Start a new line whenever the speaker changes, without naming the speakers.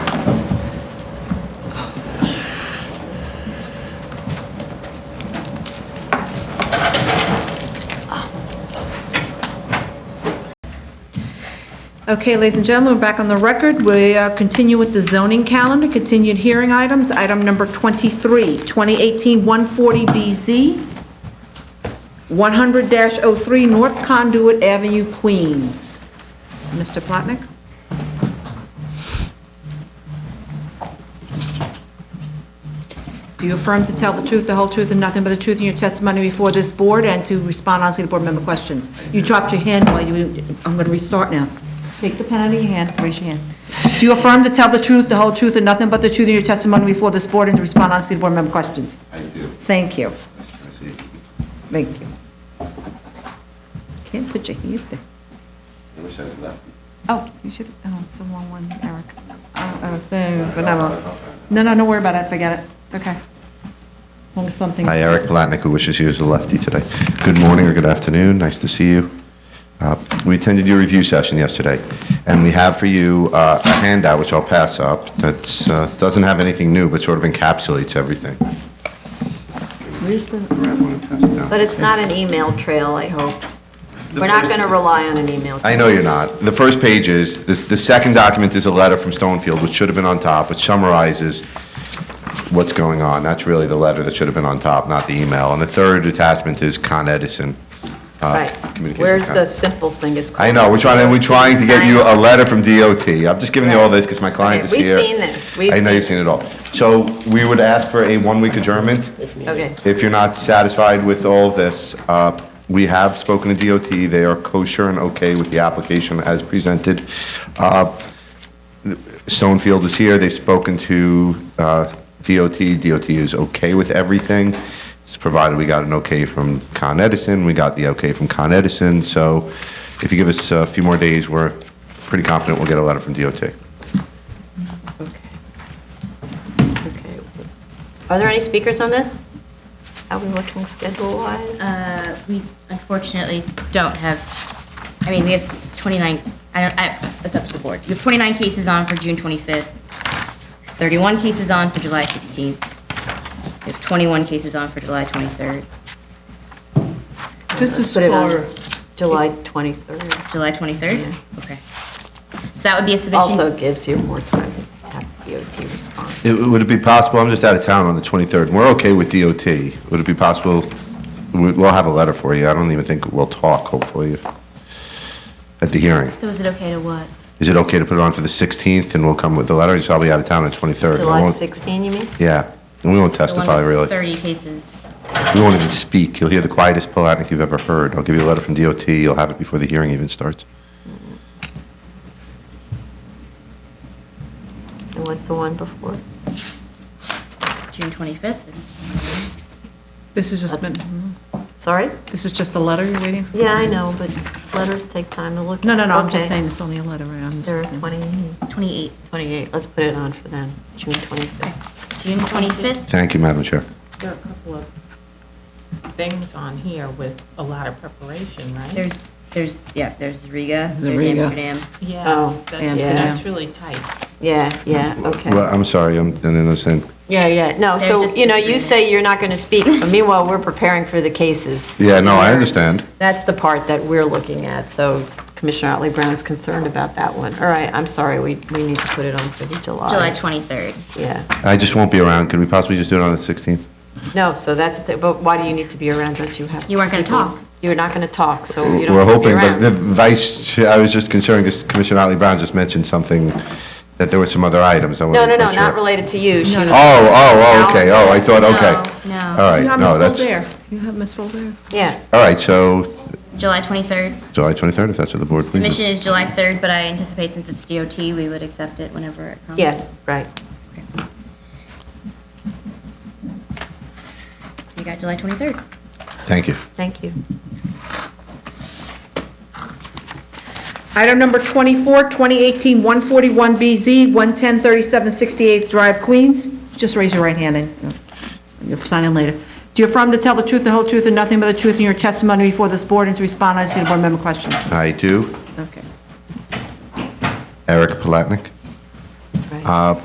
Okay, ladies and gentlemen, we're back on the record. We uh, continue with the zoning calendar, continued hearing items. Item number 23, 2018-140BZ, 100-03 North Conduit Avenue, Queens. Mr. Plotnick? Do you affirm to tell the truth, the whole truth, and nothing but the truth in your testimony before this board and to respond honestly to board member questions? You dropped your hand while you, I'm going to restart now. Take the pen out of your hand, raise your hand. Do you affirm to tell the truth, the whole truth, and nothing but the truth in your testimony before this board and to respond honestly to board member questions?
I do.
Thank you.
I was trying to see.
Thank you. Can't put your hand there.
I wish I was left.
Oh, you should, oh, it's the wrong one, Eric. Uh, uh, thing, but never- No, no, don't worry about it, forget it, it's okay. As long as something's...
Hi, Eric Palatnik, who wishes he was a lefty today. Good morning or good afternoon, nice to see you. Uh, We attended your review session yesterday, and we have for you uh, a handout, which I'll pass up, that doesn't have anything new, but sort of encapsulates everything.
Where's the...
Grab one and pass it down.
But it's not an email trail, I hope.
The
We're not
first-
going to rely on an email.
I
trail.
know you're not. The first page is, this, the second document is a letter from Stonefield, which should have been on top, which summarizes what's going on. That's really the letter that should have been on top, not the email. And the third attachment is Con Edison. uh,
Right.
communication
Where's
con-
the simple thing it's called?
I know, we're trying, we're trying to get you a letter from DOT. I'm just giving you all this because my client
Okay,
is
we've
here.
seen this. We've
I know
seen
you've seen it all. So we would ask for a one-week adjournment.
Okay,
If you're not satisfied with all of this, uh, we have spoken to DOT, they are kosher and okay with the application as presented. Uh, Stonefield is here, they've spoken to uh, DOT, DOT is okay with everything, It's provided we got an okay from Con Edison, we got the okay from Con Edison, so if you give us a few more days, we're pretty confident we'll get a letter from DOT.
okay. Okay. Are there any speakers on this? How we looking schedule-wise?
Uh, we unfortunately don't have, I mean, we have 29, I don't, I, it's up to the board. You have 29 cases on for June 25th, 31 cases on for July 16th, you have 21 cases on for July 23rd,
This is
Put it on
for,
July 23rd.
July 23rd? Okay. So that would be a submission.
Also gives you more time to have DOT respond.
It- Would it be possible, I'm just out of town on the 23rd, we're okay with DOT. Would it be possible, we- we'll have a letter for you, I don't even think we'll talk, hopefully, at the hearing.
So is it okay to what?
Is it okay to put it on for the 16th, and we'll come with the letter, so I'll be out of town on the 23rd? and I
July
won't-
16, you mean?
Yeah, and we won't
The one
testify,
with
really.
30 cases.
We won't even speak, you'll hear the quietest Palatnik you've ever heard. I'll give you a letter from DOT, you'll have it before the hearing even starts.
And what's the one before?
June 25th is
this is just, meant-
Sorry?
this is just a letter you're reading?
Yeah, I know, but letters take time to look at.
No, no, no, I'm just
Okay.
saying it's only a letter, right? I'm just-
There are 20.
28th.
28, let's put it on for then, June 25th.
June 25th?
Thank you, Madam Chair.
There are a couple of things on here with a lot of preparation, right?
There's, there's, yeah, there's Riga,
There's
there's
Riga.
Amsterdam.
Yeah,
Oh,
that's,
yeah.
that's really tight.
Yeah, yeah,
Well,
okay.
I'm sorry, I'm, I didn't understand.
Yeah, yeah, no,
They're
so,
just
you know, you
disagreeing.
say you're not going to speak, but meanwhile, we're preparing for the cases.
Yeah, no, I understand.
That's the part that we're looking at, so Commissioner Otley Brown's concerned about that one. All right, I'm sorry, we, we need to put it on for the July.
July 23rd.
Yeah,
I just won't be around, could we possibly just do it on the 16th?
no, so that's, the- but why do you need to be around, don't you have?
You weren't gonna talk.
You're not going to talk, so you don't
We're
have to be
hoping, but the
around.
vice, I was just concerned, because Commissioner Otley Brown just mentioned something, that there were some other items. I
No,
wasn't
no, no,
quite sure.
not related to you. She-
Oh, oh, oh, okay, oh, I thought, okay.
No, no.
All right,
You have
no,
Ms.
that's,
there. you have Ms. there.
Yeah,
all right, so
July 23rd.
July 23rd, if that's what the board thinks.
Submission is July 3rd, but I anticipate since it's DOT, we would accept it whenever it comes.
yes, right.
You got July 23rd.
Thank you.
Thank you.
Item number 24, 2018-141BZ, 11037 68th Drive, Queens. Just raise your right hand and uh, you'll sign in later. Do you affirm to tell the truth, the whole truth, and nothing but the truth in your testimony before this board and to respond honestly to board member questions?
I do,
Okay.
Eric Palatnik.
Right.
Uh,